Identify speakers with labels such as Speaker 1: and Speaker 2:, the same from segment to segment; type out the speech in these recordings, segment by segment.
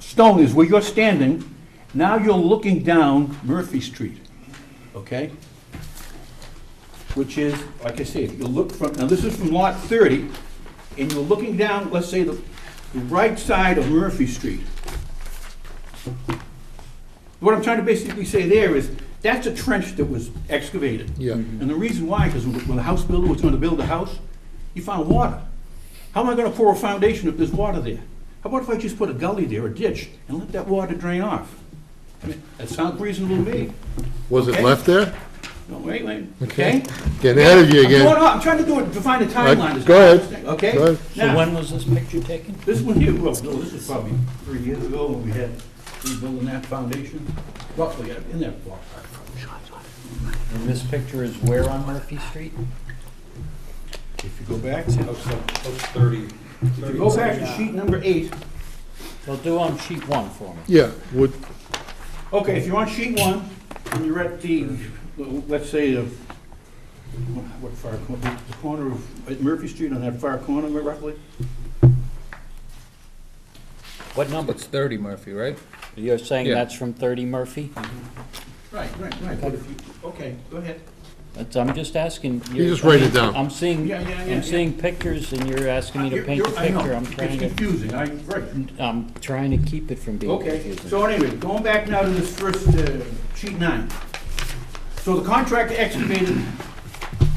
Speaker 1: stone is where you're standing, now you're looking down Murphy Street, okay? Which is, like I said, you look from, now this is from lot 30, and you're looking down, let's say, the the right side of Murphy Street. What I'm trying to basically say there is, that's a trench that was excavated.
Speaker 2: Yeah.
Speaker 1: And the reason why, because when when the house builder was gonna build a house, he found water. How am I gonna pour a foundation if there's water there? How about if I just put a gully there, a ditch, and let that water drain off? I mean, That sounds reasonable to me.
Speaker 2: Was it
Speaker 1: Okay.
Speaker 2: left there?
Speaker 1: No, wait, wait, okay?
Speaker 2: Getting ahead of you
Speaker 1: I'm going
Speaker 2: again.
Speaker 1: on, I'm trying to do it, define a timeline. is
Speaker 2: go
Speaker 1: what I'm
Speaker 2: ahead.
Speaker 1: saying, Okay?
Speaker 2: Go ahead.
Speaker 3: So
Speaker 1: Now-
Speaker 3: when was this picture taken?
Speaker 1: This one here, well, no, this is probably three years ago when we had rebuilding that foundation, roughly uh, in that ballpark.
Speaker 3: And this picture is where on Murphy Street?
Speaker 1: If you go back,
Speaker 4: House number- house thirty.
Speaker 1: if you go back to sheet number eight,
Speaker 3: Well, do on sheet one for me.
Speaker 2: Yeah, would,
Speaker 1: okay, if you're on sheet one, and you're at the, let's say, the, what far, cor- the corner of at Murphy Street on that far corner roughly?
Speaker 3: What number?
Speaker 5: It's 30 Murphy, right?
Speaker 3: You're saying
Speaker 5: Yeah.
Speaker 3: that's from 30 Murphy?
Speaker 1: Right, right, right, but if you, okay, go ahead.
Speaker 3: That's, I'm just asking.
Speaker 2: You just write it down.
Speaker 3: I'm seeing,
Speaker 1: Yeah, yeah, yeah, yeah. Uh,
Speaker 3: I'm seeing pictures and you're asking me to
Speaker 1: You're-
Speaker 3: paint a
Speaker 1: you're- I know,
Speaker 3: picture. I'm trying
Speaker 1: It's
Speaker 3: to,
Speaker 1: confusing, I, right.
Speaker 3: I'm trying to keep it from being
Speaker 1: Okay,
Speaker 3: confusing.
Speaker 1: so anyway, going back now to this first, uh, sheet nine. So the contractor excavated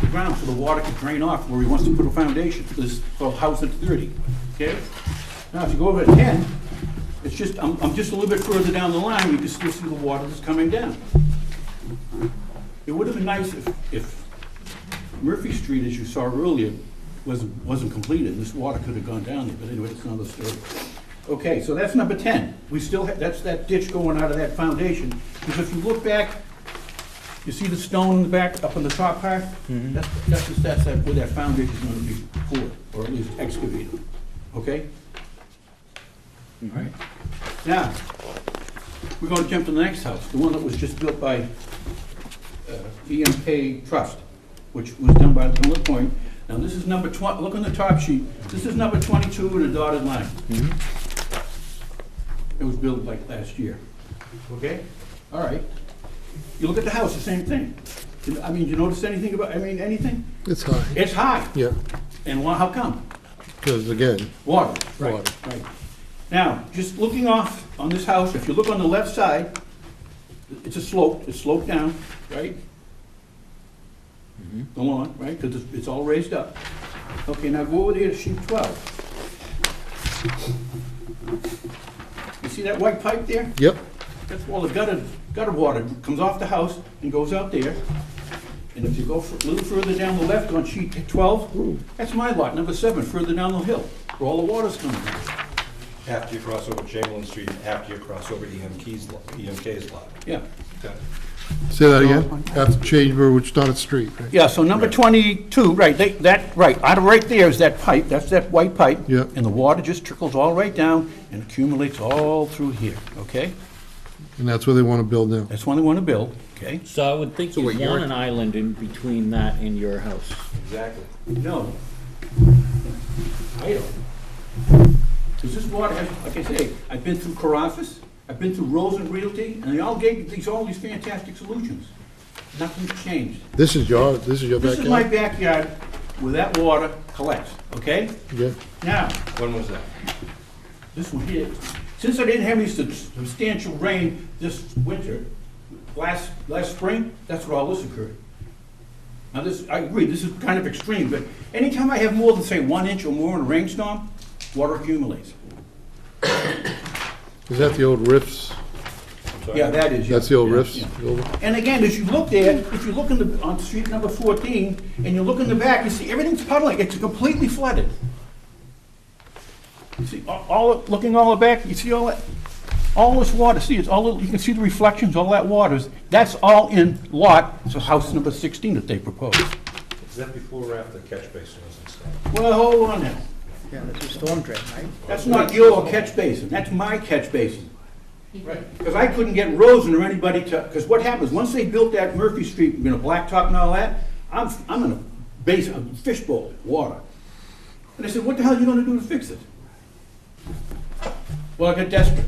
Speaker 1: the ground so the water could drain off where he wants to put a foundation, for this, for house at thirty, okay? Now, if you go over to ten, it's just, I'm, I'm just a little bit further down the line, you can still see the water that's coming down. It would have been nice if, if Murphy Street, as you saw earlier, wasn't, wasn't completed, this water could have gone down there, but anyway, it's another story. Okay, so that's number ten, we still, ha- that's that ditch going out of that foundation, because if you look back, you see the stone in the back, up in the top part? That's, that's, just- that's that- where that foundation's gonna be poured, or at least excavated, okay? All right, now, we're gonna jump to the next house, the one that was just built by uh, EMK Trust, which was done by Miller Point. Now, this is number 20, look on the top sheet, this is number 22 in a dotted line. It was built like last year. Okay? All right. You look at the house, the same thing. You- I mean, you notice anything about, I mean, anything?
Speaker 2: it's high.
Speaker 1: It's high.
Speaker 2: Yeah,
Speaker 1: And why, how come?
Speaker 2: because again,
Speaker 1: Water.
Speaker 2: Water.
Speaker 1: Right, right. Now, just looking off on this house, if you look on the left side, it's a slope, it's sloped down, right? The lawn, right, because it's, it's all raised up. Okay, now go over there to sheet twelve. You see that white pipe there?
Speaker 2: yep,
Speaker 1: That's all the gutter, gutter water comes off the house and goes out there. And if you go a little further down the left on sheet twelve, that's my lot, number seven, further down the hill, where all the water's coming from.
Speaker 4: After you cross over Chamberlain Street, and after you cross over EMK's, lo- EMK's lot.
Speaker 1: Yeah.
Speaker 4: Okay.
Speaker 2: say that again, after Chamber, which not a street, right?
Speaker 1: Yeah, so number twenty-two, right, they- that, right, out of right there is that pipe, that's that white pipe.
Speaker 2: Yeah.
Speaker 1: And the water just trickles all right down and accumulates all through here, okay?
Speaker 2: and that's where they want to build now.
Speaker 1: That's one they want to build, okay?
Speaker 3: So I would think you'd want an island in between that and your house.
Speaker 4: Exactly.
Speaker 1: No. I don't. Is this water, like I say, I've been through Caroffus, I've been through Rosen Realty, and they all gave these, all these fantastic solutions. Nothing's changed.
Speaker 2: This is your, this is your
Speaker 1: This is my backyard
Speaker 2: backyard?
Speaker 1: where that water collects, okay?
Speaker 2: Yeah,
Speaker 1: Now,
Speaker 4: When was that?
Speaker 1: this one here, since I didn't have any sub- substantial rain this winter, last, last spring, that's where all this occurred. Now, this, I agree, this is kind of extreme, but anytime I have more than, say, one inch or more in a rainstorm, water accumulates.
Speaker 2: is that the old Riffs?
Speaker 1: Yeah, that is. yeah,
Speaker 2: That's the old
Speaker 1: yeah,
Speaker 2: Riffs?
Speaker 1: yeah.
Speaker 2: building?
Speaker 1: And again, as you look there, if you look in the, on street number fourteen, and you look in the back, you see everything's puddling, it's completely flooded. You see, all- all, looking all the back, you see all that, all this water, see, it's all, you can see the reflections, all that water is, that's all in lot, so house number sixteen that they proposed.
Speaker 4: Is that before or after catch basin was installed?
Speaker 1: Well, hold on now,
Speaker 6: Yeah, that's a storm drain, right?
Speaker 1: that's not your catch basin, that's my catch basin. Right. Because I couldn't get Rosen or anybody to, because what happens, once they built that Murphy Street, you know, blacktop and all that, I'm, I'm in a base, a fishbowl, water. And I said, what the hell are you gonna do to fix it? Well, I got desperate.